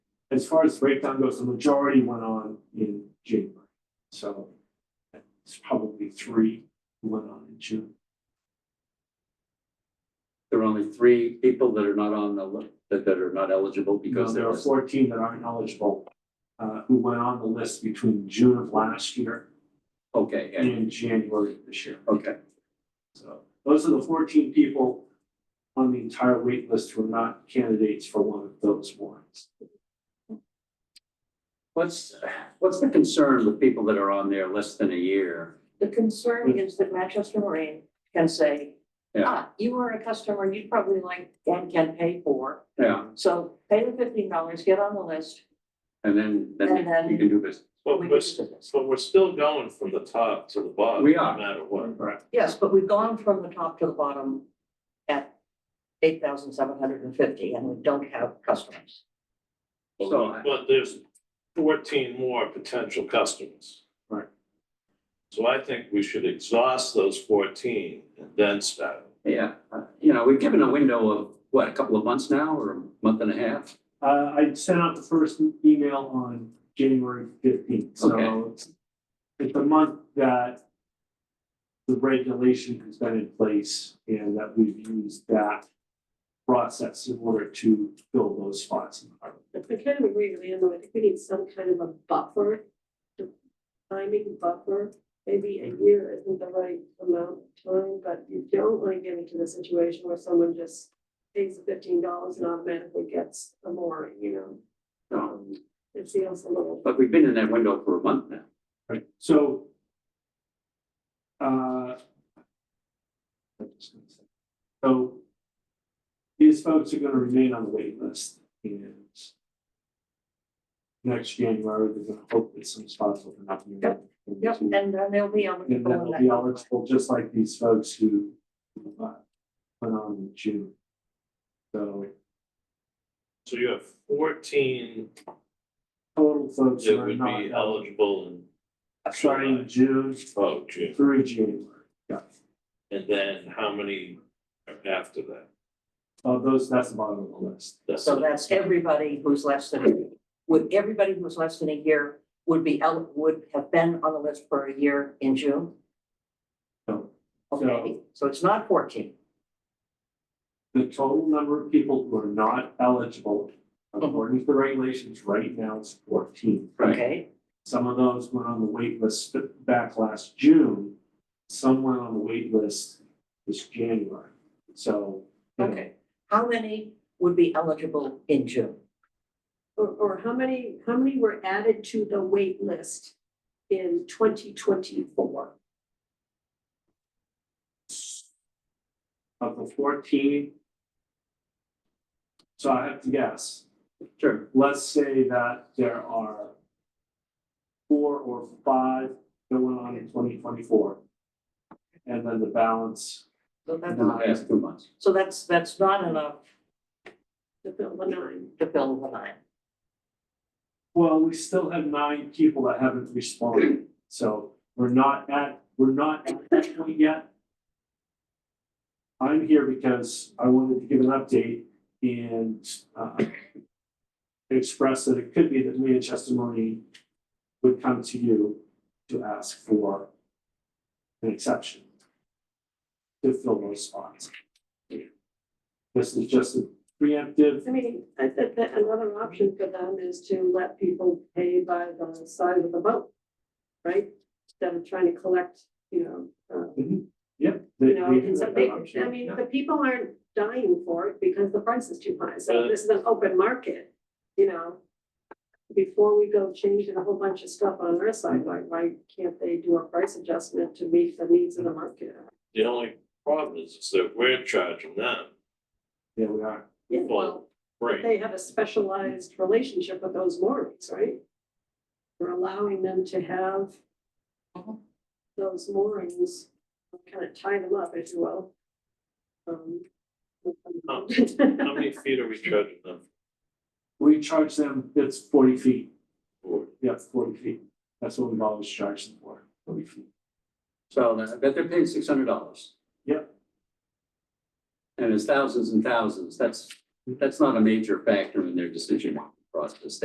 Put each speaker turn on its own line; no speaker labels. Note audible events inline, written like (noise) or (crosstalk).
as far as breakdown goes, the majority went on in January. So it's probably three who went on in June.
There are only three people that are not on the, li- that, that are not eligible because
because there
they're.
are fourteen that aren't eligible, uh, who went on the list between June of last year
Okay, and,
and January of this year.
okay,
So those are the fourteen people on the entire wait list who are not candidates for one of those warrants.
what's, what's the concern with people that are on there less than a year?
The concern is that Manchester Marine can say,
Yeah.
ah, you are a customer you'd probably like and can pay for.
Yeah,
So pay the fifteen dollars, get on the list,
and then, then
And then-
you can do this.
But
we can
we're, s-
do this.
but we're still going from the top to the bottom,
We
no
are.
matter what.
Right.
Yes, but we've gone from the top to the bottom at eight thousand seven hundred and fifty and we don't have customers.
But-
So I-
But there's fourteen more potential customers.
Right.
So I think we should exhaust those fourteen and then start.
Yeah, uh, you know, we've given a window of, what, a couple of months now or a month and a half?
Uh, I sent out the first email on January fifteenth, so
Okay.
it's- it's the month that the regulation has been in place and that we've used that process in order to fill those spots in the harbor.
I kind of agree with Anne, though, I think we need some kind of a buffer, the timing buffer, maybe a year isn't the right amount of time, but you don't want to get into the situation where someone just pays fifteen dollars and automatically gets a mooring, you know,
No,
um, it feels a little,
but we've been in that window for a month now.
Right, so. uh, So. These folks are gonna remain on the wait list and. Next January, they're gonna hope that some spots open up.
Yep, Yep,
And
and then they'll be eligible.
then they'll be eligible, just like these folks who. uh, Went on in June. So
So you have fourteen
total folks who
that
are
would
not
be eligible and,
starting in June
oh, gee,
through January. Yeah,
and then how many are after that?
Uh, those, that's the bottom of the list.
That's
So that's everybody who's less than, would, everybody who's less than a year would be, el- would have been on the list for a year in June?
No.
Okay, so it's not fourteen.
the total number of people who are not eligible according to the regulations right now is fourteen.
Right.
Okay,
Some of those went on the wait list back last June, some went on the wait list this January. So, you know,
okay. How many would be eligible in June?
or, or how many, how many were added to the wait list in twenty twenty-four?
of the fourteen. So I have to guess,
Sure.
let's say that there are four or five that went on in twenty twenty-four. And then the balance,
So that's
In the past two months.
So that's, that's not enough
To fill the nine,
to fill the nine.
Well, we still have nine people that haven't responded, so we're not at, we're not at that point yet. I'm here because I wanted to give an update and uh, express that it could be that Manchester Marine would come to you to ask for an exception to fill those spots. This is just a preemptive,
I mean, I think that another option for them is to let people pay by the size of the boat, right? Instead of trying to collect, you know, uh,
yep. they-
you know,
they do
and so
have that
they,
option,
I mean,
yeah.
the people aren't dying for it because the price is too high, so
Uh,
this is an open market, you know? Before we go changing a whole bunch of stuff on our side, like, why can't they do a price adjustment to meet the needs of the market?
The only problem is is that we're charging them,
Yeah, we are.
Yeah,
Well, right?
they have a specialized relationship with those moorings, right? We're allowing them to have
Mhm.
those moorings, kind of tie them up, if you will. Um,
How
(laughs)
how many feet are we charging them
We charge them, it's forty feet,
for?
yeah, forty feet, that's what we've always charged them for, forty feet.
So I bet they're paying six hundred dollars.
Yep.
And it's thousands and thousands. That's, that's not a major factor in their decision process.